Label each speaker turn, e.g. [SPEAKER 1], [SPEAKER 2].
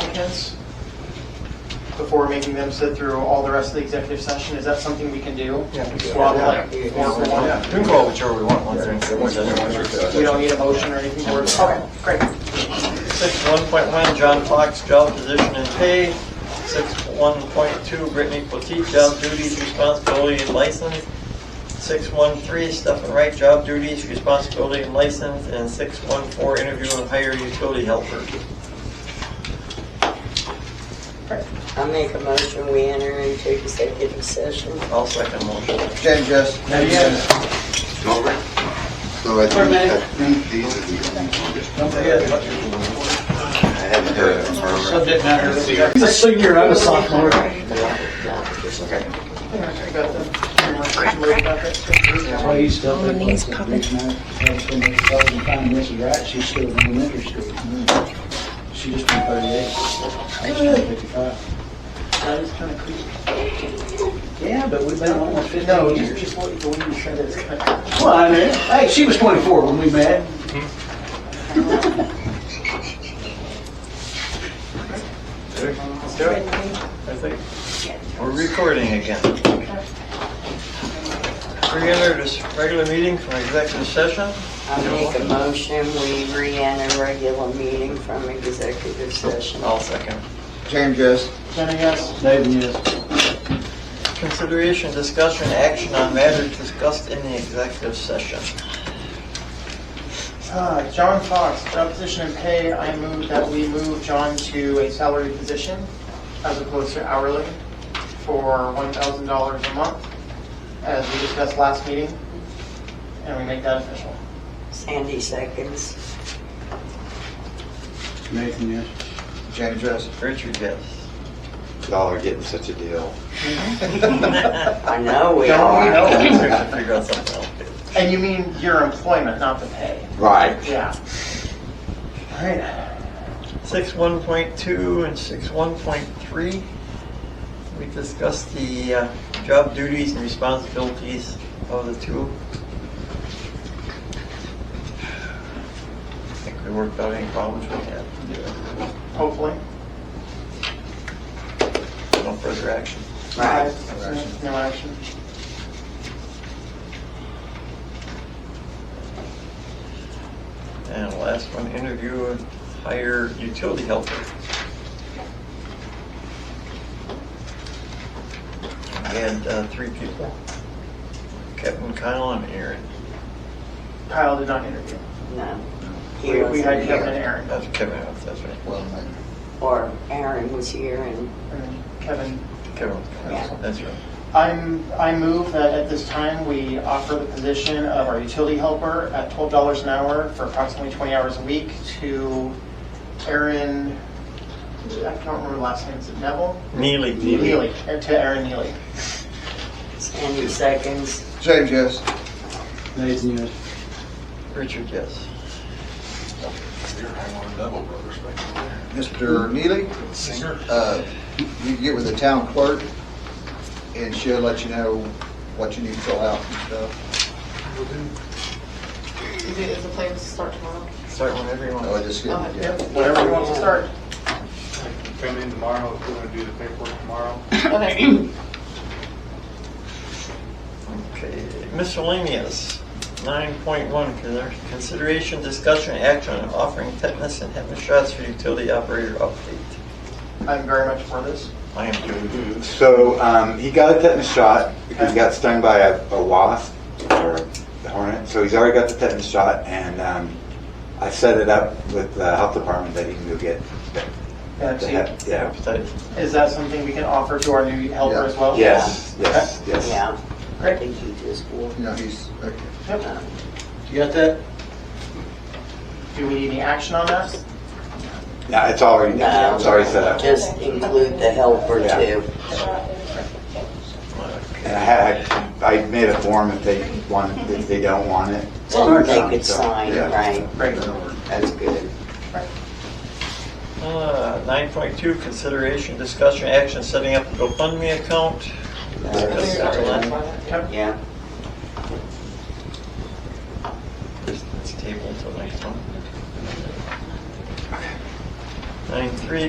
[SPEAKER 1] applicants before making them sit through all the rest of the executive session? Is that something we can do?
[SPEAKER 2] Yeah.
[SPEAKER 1] Swap like four for one?
[SPEAKER 2] We can go whichever we want, one through
[SPEAKER 1] We don't need a motion or anything for it? Okay, great.
[SPEAKER 2] Six one point one, John Fox, job position and pay. Six one point two, Brittany Potteet, job duties, responsibility, and license. Six one three, Stefan Wright, job duties, responsibility, and license. And six one four, interview and hire utility helper.
[SPEAKER 3] I make a motion, we enter into executive session.
[SPEAKER 2] I'll second motion.
[SPEAKER 4] Jen, Jess. So I think, I think these are the only ones. I uh, haven't heard from her.
[SPEAKER 1] Subject matter.
[SPEAKER 5] The senior, I was sophomore.
[SPEAKER 1] I got the- Right back up.
[SPEAKER 5] Why you still think like that, dude, man? That's when they tell them, "Fine, this is right, she's still in elementary school. Mm. She just turned thirty-eight. I just turned fifty-five.
[SPEAKER 1] That is kind of creepy.
[SPEAKER 5] Yeah, but we've been almost
[SPEAKER 1] No,
[SPEAKER 5] fifteen
[SPEAKER 1] just,
[SPEAKER 5] years.
[SPEAKER 1] just what you believe you said is kind of.
[SPEAKER 5] Well, I mean, hey, she was twenty-four when we met.
[SPEAKER 1] Let's do it.
[SPEAKER 2] I think we're recording again. Re-enter this regular meeting from executive session.
[SPEAKER 3] I make a motion, we re-enter regular meeting from executive session.
[SPEAKER 2] I'll second.
[SPEAKER 4] Jen, Jess.
[SPEAKER 1] Jenny, yes?
[SPEAKER 5] David, yes.
[SPEAKER 2] Consideration, discussion, action on matters discussed in the executive session.
[SPEAKER 1] Uh, John Fox, job position and pay, I move that we move John to a salary position as opposed to hourly for $1,000 a month, as we discussed last meeting, and we make that official.
[SPEAKER 3] Sandy seconds.
[SPEAKER 5] Nathan, yes.
[SPEAKER 4] Jen, Jess.
[SPEAKER 2] Richard, yes.
[SPEAKER 4] Y'all are getting such a deal.
[SPEAKER 3] I know
[SPEAKER 1] Don't
[SPEAKER 3] we
[SPEAKER 1] we
[SPEAKER 3] are.
[SPEAKER 1] know?
[SPEAKER 2] We have to figure out something else.
[SPEAKER 1] And you mean your employment, not the pay?
[SPEAKER 4] Right.
[SPEAKER 1] Yeah. All right.
[SPEAKER 2] Six one point two and six one point three, we discussed the uh, job duties and responsibilities of the two. I think we worked out any problems we had.
[SPEAKER 1] Hopefully.
[SPEAKER 2] No further action.
[SPEAKER 3] Right.
[SPEAKER 1] No action.
[SPEAKER 2] And last one, interview and hire utility helper. We had uh, three people, Kevin, Kyle, and Aaron.
[SPEAKER 1] Kyle did not interview.
[SPEAKER 3] No. He
[SPEAKER 1] We we had
[SPEAKER 3] wasn't
[SPEAKER 1] Kevin and
[SPEAKER 3] here.
[SPEAKER 1] Aaron,
[SPEAKER 2] That's Kevin, that's right.
[SPEAKER 4] Well, then.
[SPEAKER 3] Or Aaron was here and,
[SPEAKER 1] and then Kevin
[SPEAKER 2] Kevin, that's right.
[SPEAKER 1] I'm, I move that at this time, we offer the position of our utility helper at $12 an hour for approximately 20 hours a week to Erin, I can't remember the last name, is it Neville?
[SPEAKER 2] Neely.
[SPEAKER 1] Neely, uh, to Erin Neely.
[SPEAKER 3] Sandy seconds.
[SPEAKER 4] Jen, Jess.
[SPEAKER 5] Nathan, yes.
[SPEAKER 2] Richard, yes.
[SPEAKER 4] Mr. Neely. Singer. Uh, you can get with the town clerk and she'll let you know what you need to fill out and stuff.
[SPEAKER 6] Is it, is the plan to start tomorrow?
[SPEAKER 2] Start whenever you
[SPEAKER 4] No, I
[SPEAKER 2] want.
[SPEAKER 4] just kidding. yeah.
[SPEAKER 1] Yep, Whatever you want to start.
[SPEAKER 7] Come in tomorrow, if you want to do the paperwork tomorrow.
[SPEAKER 6] Okay.
[SPEAKER 2] Okay, miscellaneous, 9.1, con- consideration, discussion, action on offering tetanus and tetanus shots for utility operator update.
[SPEAKER 1] I'm very much for this.
[SPEAKER 2] I am doing.
[SPEAKER 8] So um, he got a tetanus shot because he got stung by a, a wasp or a hornet. So he's already got the tetanus shot, and um, I set it up with the health department that he can go get.
[SPEAKER 1] Yeah,
[SPEAKER 8] The
[SPEAKER 1] see,
[SPEAKER 8] hep- yeah.
[SPEAKER 1] Is that something we can offer to our new helper
[SPEAKER 4] Yeah.
[SPEAKER 1] as well?
[SPEAKER 8] Yes. Yes. Yes.
[SPEAKER 3] Yeah. I
[SPEAKER 1] Great.
[SPEAKER 3] think he just walked.
[SPEAKER 4] No, he's, okay.
[SPEAKER 1] Yep.
[SPEAKER 5] You got that?
[SPEAKER 1] Do we need any action on that?
[SPEAKER 8] Yeah. It's already.
[SPEAKER 3] No.
[SPEAKER 8] It's already set up.
[SPEAKER 3] Um, Just include the helper
[SPEAKER 8] Yeah.
[SPEAKER 3] too.
[SPEAKER 8] And I had. I made a form if they want. If they don't want it.
[SPEAKER 3] Then they could
[SPEAKER 8] So,
[SPEAKER 3] sign,
[SPEAKER 8] yeah.
[SPEAKER 3] right?
[SPEAKER 1] Great.
[SPEAKER 3] That's good.
[SPEAKER 2] Uh, 9.2, consideration, discussion, action, setting up a GoFundMe account. Discussed that last-
[SPEAKER 1] Yep.
[SPEAKER 3] Yeah.
[SPEAKER 2] It's tabled till next one. 9.3,